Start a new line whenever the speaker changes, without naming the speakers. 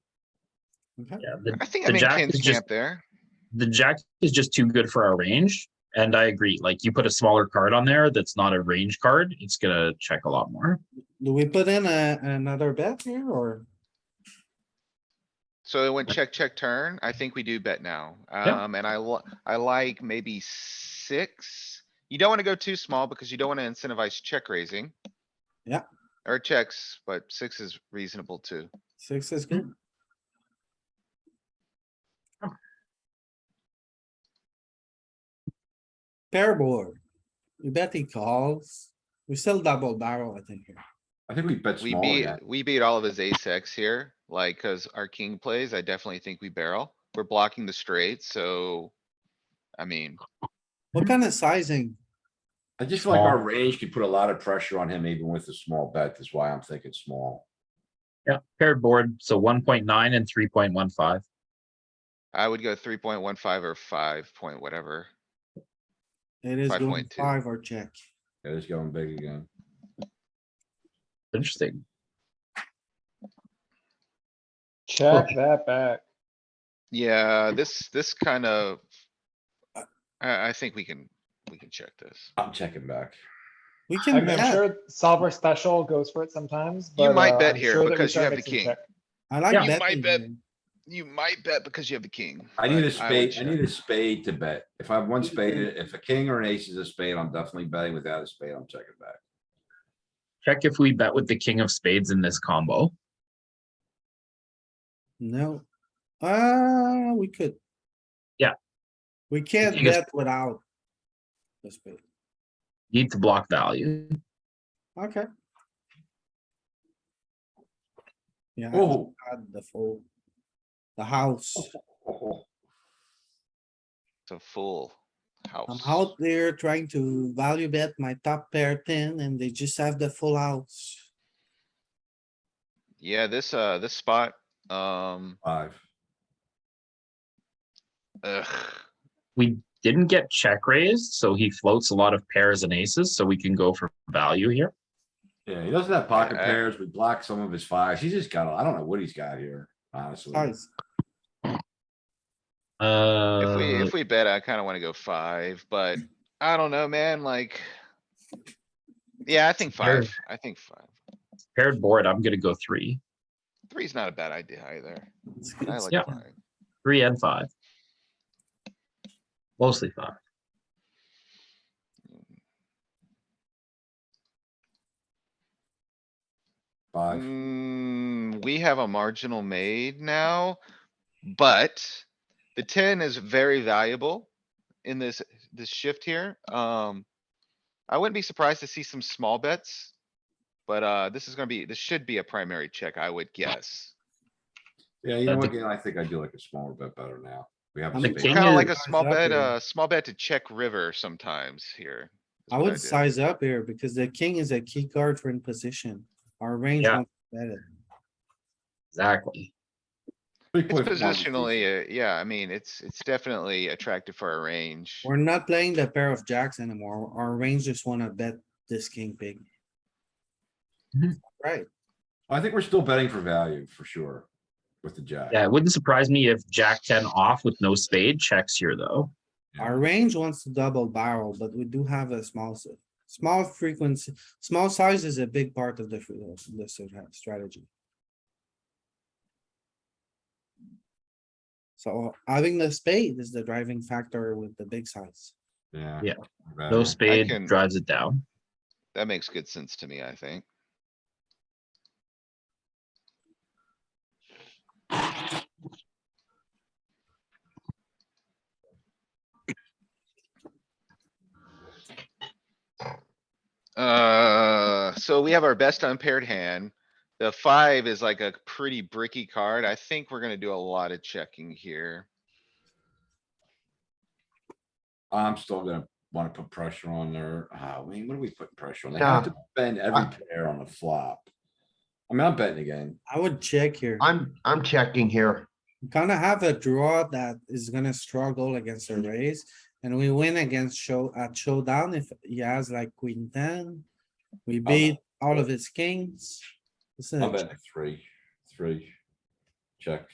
Yeah, the,
I think I
the
mean
jack
kings
is just-
camp there.
the jack is just too good for our range. And I agree, like you put a smaller card on there that's not a range card, it's gonna check a lot more.
Do we put in a, another bet here or?
So it went check, check, turn. I think we do bet now.
Yeah.
Um, and I li- I like maybe six. You don't wanna go too small because you don't wanna incentivize check raising.
Yeah.
Or checks, but six is reasonable too.
Six is good. Oh. Pair board. We bet he calls. We still double barrel, I think. here.
I think we bet
We
small
beat,
yeah.
we beat all of his ace X here, like, cause our king plays, I definitely think we barrel. We're blocking the straight, so. I mean,
What kind of sizing?
I just feel like our range could put a lot of pressure on him even with a small bet. That's why I'm thinking small.
Yeah, paired board, so one point nine and three point one five.
I would go three point one five or five point whatever.
It is going
5.2.
five or check.
Yeah, he's going big again.
Interesting.
Check that back.
Yeah, this, this kind of.
Uh
I, I think we can, we can check this.
I'm checking back.
We
I
can
mean, I'm
bet.
sure solver special goes for it sometimes,
You
but.
might
uh,
bet
I'm
here
sure that we
because you
try to
have
make
the
some
king.
check.
I
Yeah.
like
You
betting.
might bet.
here.
You might bet because you have the king.
I need
but
a
would
spade, I
check.
need a spade to bet. If I have one spade, if a king or an ace is a spade, I'm definitely betting. Without a spade, I'm checking back.
Check if we bet with the king of spades in this combo.
No. Uh, we could.
Yeah.
We can't
King is-
bet without. the spade.
Need to block value.
Okay. Yeah. I just
Oh.
had The fold. The house.
oh,
It's a full
Um,
I'm
house.
out there trying to value bet my top pair ten and they just have the full house.
Yeah, this, uh, this spot, um,
Five.
ugh,
We didn't get check raised, so he floats a lot of pairs and aces, so we can go for value here.
Yeah, he doesn't have pocket
I-
pairs. We block some of his fives. He's just got, a- I don't know what he's got here, honestly.
Guys,
if we,
Uh,
if we bet, I kinda wanna go five, but I don't know, man, like. Yeah, I think
Sure.
five, I think five.
paired board, I'm gonna go three,
Three's not a bad idea either.
it's-
I
it's-
yeah.
like five.
three and five. Mostly five.
Five.
Mm, we have a marginal made now, but the ten is very valuable in this, this shift here. Um, I wouldn't be surprised to see some small bets. But, uh, this is gonna be, this should be a primary check, I would guess.
Yeah, you know
Uh,
what,
the-
Gail, I think I do like a smaller bet better now. We have. a
I'm
The
spade.
king
Kinda
is-
like a
Guys
small
up
bet,
here.
uh, small bet to check river sometimes here. is
I
what
would
do.
size up here because the king is a key card for in position. Our range.
Yeah.
won't bet it.
Exactly.
Three
It's
point four was decent.
positionally, uh, yeah, I mean, it's, it's definitely attractive for a range.
We're not playing the pair of jacks anymore. Our range just wanna bet this king big.
Mhm.
Right,
I think we're still betting for value for sure with the jack.
Yeah, it wouldn't surprise me if jack ten off with no spade checks here, though.
our range wants to double barrel, but we do have a small, s- small frequency, small size is a big part of the, fr- the strat- strategy. So having the spade is the driving factor with the big size.
Yeah.
Yeah.
we're
No
betting.
spade
can-
drives it down.
That makes good sense to me, I think. Uh, so we have our best unpaired hand. The five is like a pretty bricky card. I think we're gonna do a lot of checking here.
I'm still gonna wanna put pressure on there. Ah, I mean, what are we putting pressure on? They have to bend every pair on the flop. I mean, I'm betting again.
I would check here.
I'm, I'm checking here.
We Kinda have a draw that is gonna struggle against a raise and we win against show at showdown if he has like queen ten. We beat all of his kings. This is a
I'm betting three, three. Check.